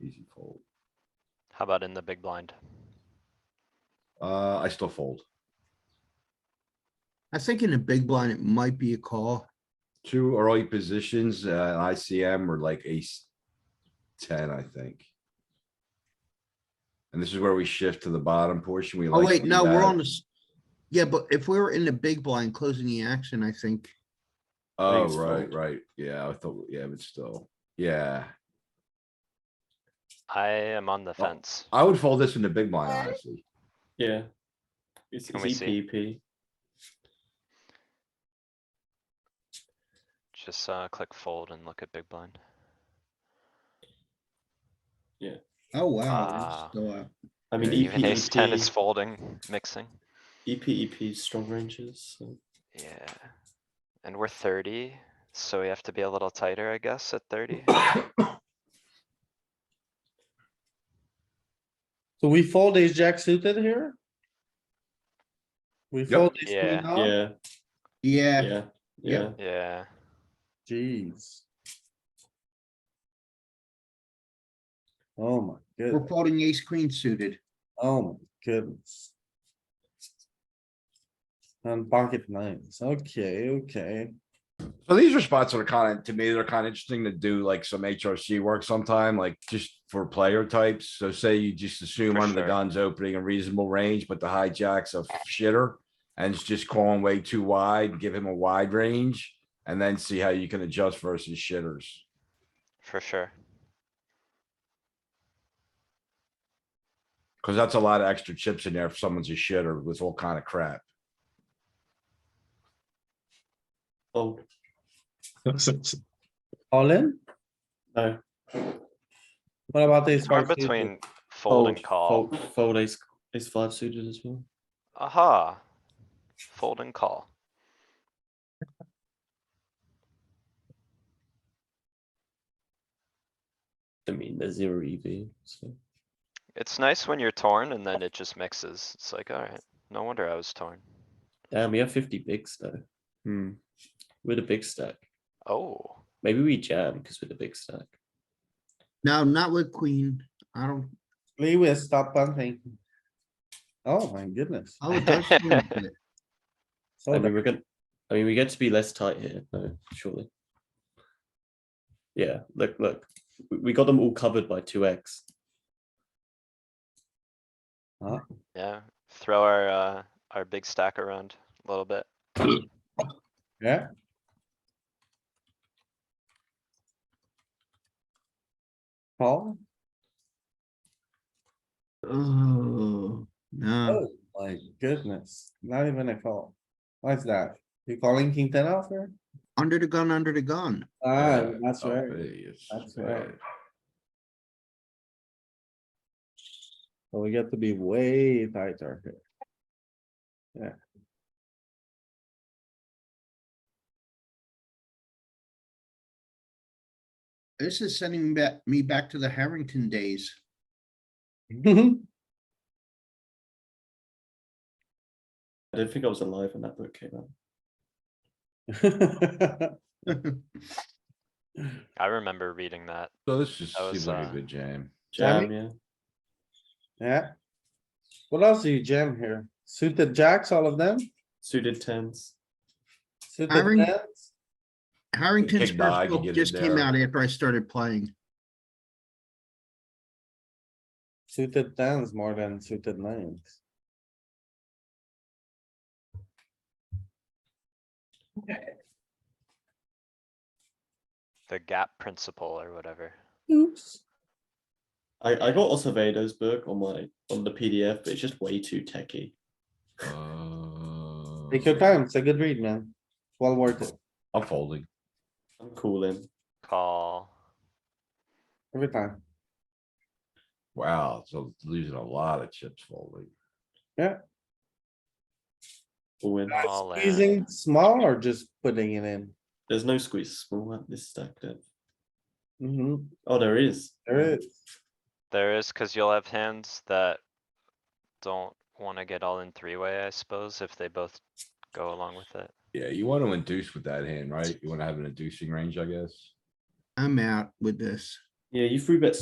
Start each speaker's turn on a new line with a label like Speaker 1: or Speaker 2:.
Speaker 1: Easy fold.
Speaker 2: How about in the big blind?
Speaker 1: Uh, I still fold.
Speaker 3: I think in the big blind, it might be a call.
Speaker 1: Two early positions, uh, ICM were like ace ten, I think. And this is where we shift to the bottom portion. We
Speaker 3: Oh,
Speaker 1: like.
Speaker 3: wait,
Speaker 1: seeing
Speaker 3: no, we're
Speaker 1: that.
Speaker 3: on this. Yeah, but if we were in the big blind closing the action, I think,
Speaker 1: Oh,
Speaker 4: it's
Speaker 1: right,
Speaker 4: fold.
Speaker 1: right. Yeah, I thought, yeah, but still, yeah.
Speaker 2: I am on the
Speaker 1: Oh.
Speaker 2: fence.
Speaker 1: I would fold this in the big blind, honestly.
Speaker 4: Yeah. It's,
Speaker 2: Can
Speaker 4: it's E
Speaker 2: we see?
Speaker 4: EPP.
Speaker 2: Just uh, click fold and look at big blind.
Speaker 3: oh, wow. uh,
Speaker 2: Ah.
Speaker 3: it's still out.
Speaker 4: I mean, E
Speaker 1: Yeah,
Speaker 2: Even
Speaker 4: EP,
Speaker 2: ace ten is
Speaker 4: EP,
Speaker 2: folding, mixing.
Speaker 4: EP, EP, E strong ranges. So.
Speaker 2: Yeah. And we're thirty, so we have to be a little tighter, I guess, at thirty.
Speaker 5: So we fold ace jack suited here? We
Speaker 1: Yep.
Speaker 5: fold ace
Speaker 2: Yeah.
Speaker 5: queen off?
Speaker 4: Yeah,
Speaker 3: Yeah.
Speaker 4: Oh, yeah, yeah.
Speaker 3: Yep.
Speaker 2: Yeah,
Speaker 5: Jeez. Oh my
Speaker 3: We're
Speaker 5: goodness,
Speaker 3: folding ace queen suited.
Speaker 5: oh my goodness. And pocket nines, okay, okay.
Speaker 1: So these are spots that are kind of, to me, they're kind of interesting to do like some HRC work sometime, like just for player types. So say you just assume
Speaker 2: For
Speaker 1: under the
Speaker 2: sure.
Speaker 1: guns opening a reasonable range, but the hijacks a shitter. And it's just calling way too wide, give him a wide range and then see how you can adjust versus shitters.
Speaker 2: for sure.
Speaker 1: Cause that's a lot of extra chips in there if someone's a shitter with all kind of crap.
Speaker 4: Oh,
Speaker 5: All in?
Speaker 4: no.
Speaker 5: What about ace?
Speaker 2: Or
Speaker 5: five suited?
Speaker 2: between fold and call.
Speaker 4: Fold, fold ace, ace five suited as well.
Speaker 2: Aha. Fold and call.
Speaker 4: I mean, there's zero EV, so.
Speaker 2: It's nice when you're torn and then it just mixes. It's like, alright, no wonder I was torn.
Speaker 4: Damn, we have fifty bigs though. Hmm. With a big stack.
Speaker 2: Oh,
Speaker 4: Maybe we jam because we're the big stack.
Speaker 3: No, not with queen. I don't.
Speaker 5: Lewis, stop pumping. Oh my goodness.
Speaker 3: I would touch queen, but
Speaker 5: So
Speaker 4: I mean, we're gonna. I mean, we get to be less tight here, no, surely. Yeah, look, look, we, we got them all covered by two X.
Speaker 2: yeah. Throw our, uh, our big stack around a little bit.
Speaker 5: Yeah. Call?
Speaker 3: Oh, no.
Speaker 5: Oh, my goodness, not even a call. Why's that? You calling king ten off here?
Speaker 3: Under the gun, under the gun.
Speaker 5: Ah,
Speaker 1: Yeah,
Speaker 5: that's
Speaker 1: Oh,
Speaker 5: right.
Speaker 1: hey, it's
Speaker 5: That's
Speaker 1: bad.
Speaker 5: right. So we got to be way tighter here. Yeah.
Speaker 3: This is sending me back, me back to the Harrington days.
Speaker 4: I don't think I was alive when that book came out.
Speaker 2: I remember reading that.
Speaker 1: So this just
Speaker 2: That was,
Speaker 1: seems like
Speaker 2: uh,
Speaker 1: a good jam.
Speaker 4: Jam,
Speaker 5: Jamming?
Speaker 4: yeah.
Speaker 5: Yeah. What else do you jam here? Suited jacks, all of them?
Speaker 4: Suited tens.
Speaker 5: Suited
Speaker 3: Hiring-
Speaker 5: tens?
Speaker 3: Harrington's
Speaker 1: Big dog,
Speaker 3: first
Speaker 1: you
Speaker 3: book
Speaker 1: get it
Speaker 3: just came
Speaker 1: there.
Speaker 3: out after I started playing.
Speaker 5: Suited tens more than suited nines.
Speaker 2: The gap principle or whatever.
Speaker 5: Oops.
Speaker 4: I, I got Acevedo's book on my on the PDF, but it's just way too techy.
Speaker 1: Uh,
Speaker 5: Take your time. It's a good read, man. Well worth it.
Speaker 1: I'm folding.
Speaker 4: I'm calling.
Speaker 2: Call.
Speaker 5: Every time.
Speaker 1: Wow, so losing a lot of chips folding.
Speaker 4: All in.
Speaker 2: All in.
Speaker 5: Squeezing small or just putting it in?
Speaker 4: There's no squeeze small at this stack depth.
Speaker 5: Mm-hmm,
Speaker 4: Oh, there is.
Speaker 5: there is.
Speaker 2: There is, cause you'll have hands that don't wanna get all in three-way, I suppose, if they both go along with it.
Speaker 1: Yeah, you want to induce with that hand, right? You want to have an inducing range, I guess.
Speaker 3: I'm out with this.
Speaker 4: Yeah, you free bet